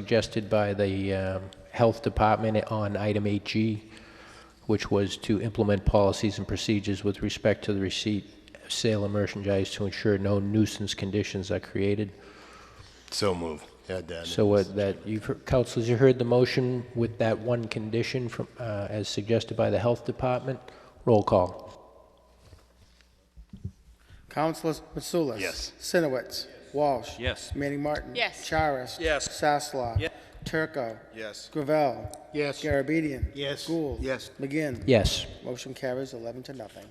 suggested by the um, Health Department on item 8G, which was to implement policies and procedures with respect to the receipt, sale of merchandise to ensure no nuisance conditions are created. So moved. Had that. So what that, you've, heard- councilors, you heard the motion with that one condition from, uh, as suggested by the Health Department. Roll call. Councilors Mitsoulas. Yes. Sinowitz. Walsh. Yes. Manning Martin. Yes. Charis. Yes. Sasslaw. Yes. Turco. Yes. Gravel. Yes. Garabedian. Yes. Gould. Yes. McGinn. Yes. Motion carries 11 to nothing.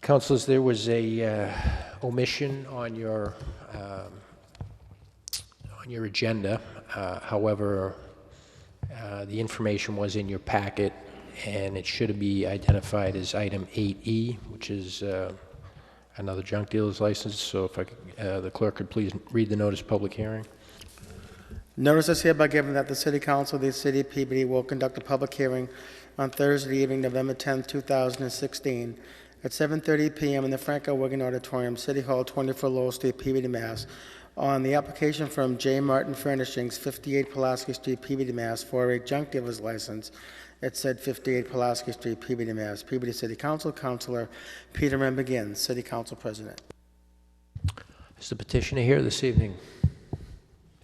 Councilors, there was a uh, omission on your, um, on your agenda. Uh, However, uh, the information was in your packet, and it should be identified as item 8E, which is uh, another junk dealer's license. So if I could- uh, the clerk could please read the notice of public hearing. Notice is hereby given that the City Council of the City of Peabody will conduct a public hearing on Thursday evening, November 10th, 2016, at 7:30 PM in the Franco Wigan Auditorium, City Hall, 24 Lowell Street, Peabody, Mass., on the application from J. Martin Furnishings, 58 Pulaski Street, Peabody, Mass., for a junk dealer's license at said 58 Pulaski Street, Peabody, Mass. Peabody City Council, Councilor Peter M. McGinn, City Council President. Is the petitioner here this evening?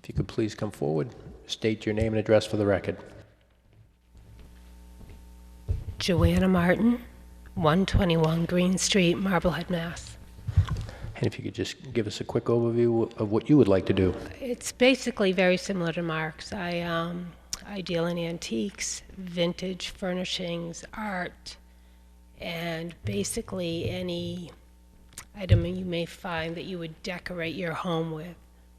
If you could please come forward, state your name and address for the record. Joanna Martin, 121 Green Street, Marblehead, Mass. And if you could just give us a quick overview of what you would like to do. It's basically very similar to Mark's. I, um, I deal in antiques, vintage furnishings, art, and basically any item you may find that you would decorate your home with.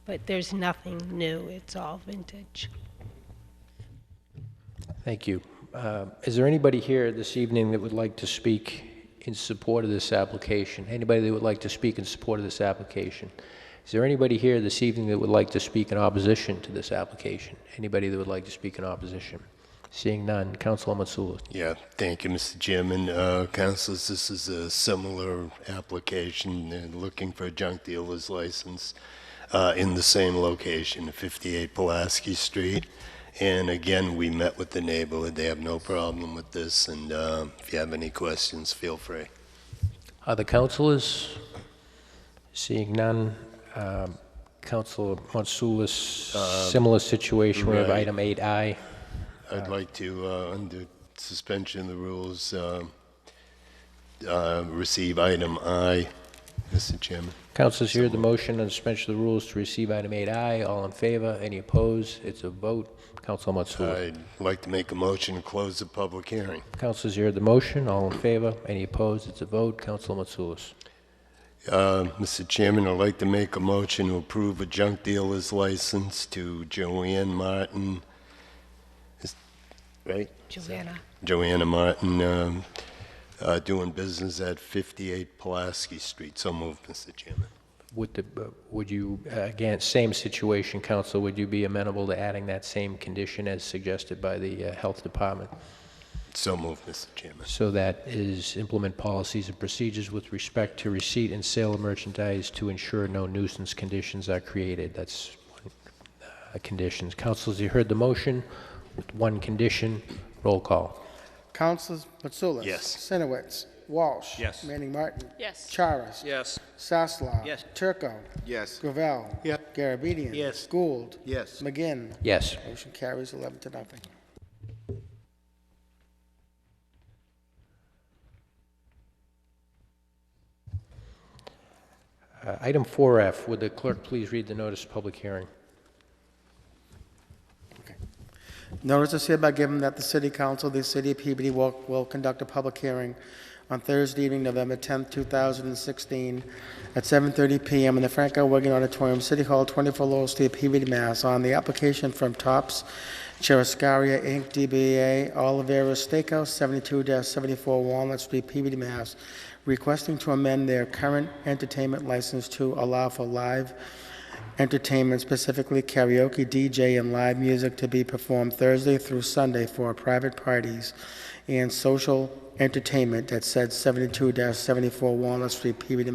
But there's nothing new, it's all vintage. Thank you. Uh, Is there anybody here this evening that would like to speak in support of this application? Anybody that would like to speak in support of this application? Is there anybody here this evening that would like to speak in opposition to this application? Anybody that would like to speak in opposition? Seeing none, Councilor Matsulis. Yeah, thank you, Mr. Chairman. Uh, councilors, this is a similar application, They're looking for a junk dealer's license uh, in the same location, 58 Pulaski Street. And again, we met with the neighborhood. They have no problem with this, and uh, if you have any questions, feel free. Other councilors? Seeing none, um, Councilor Matsulis, similar situation with right. item 8I. I'd like to, uh, under suspension of the rules, uh, uh, receive item I, Mr. Chairman. Councilors, hear the motion on suspension of the rules to receive item 8I. All in favor? Any opposed? It's a vote. Council Matsoula. I'd like to make a motion to close the public hearing. Councilors, hear the motion. All in favor? Any opposed? It's a vote. Council Matsoulis. Uh, Mr. Chairman, I'd like to make a motion to approve a junk dealer's license to Joanne Martin, Is- right? Joanna. Joanna Martin, um, uh, doing business at 58 Pulaski Street. So moved, Mr. Chairman. Would the, would you, uh, again, same situation, Council, would you be amenable to adding that same condition as suggested by the uh, Health Department? So moved, Mr. Chairman. So that is implement policies and procedures with respect to receipt and sale of merchandise to ensure no nuisance conditions are created. That's one, uh, conditions. Councilors, you heard the motion with one condition. Roll call. Councilors Mitsoulas. Yes. Sinowitz. Walsh. Yes. Manning Martin. Yes. Charis. Yes. Sasslaw. Yes. Turco. Yes. Gravel. Yep. Garabedian. Yes. Gould. Yes. McGinn. Yes. Motion carries 11 to nothing. Uh, Item 4F, would the clerk please read the notice of public hearing? Notice is hereby given that the City Council of the City of Peabody will, will conduct a public hearing on Thursday evening, November 10th, 2016, at 7:30 PM in the Franco Wigan Auditorium, City Hall, 24 Lowell Street, Peabody, Mass., on the application from Tops Cheriscaria Inc., DBA Olivera Steakhouse, 72-74 Walnut Street, Peabody, Mass., requesting to amend their current entertainment license to allow for live entertainment, specifically karaoke, DJ, and live music to be performed Thursday through Sunday for private parties and social entertainment at said 72-74 Walnut Street, Peabody,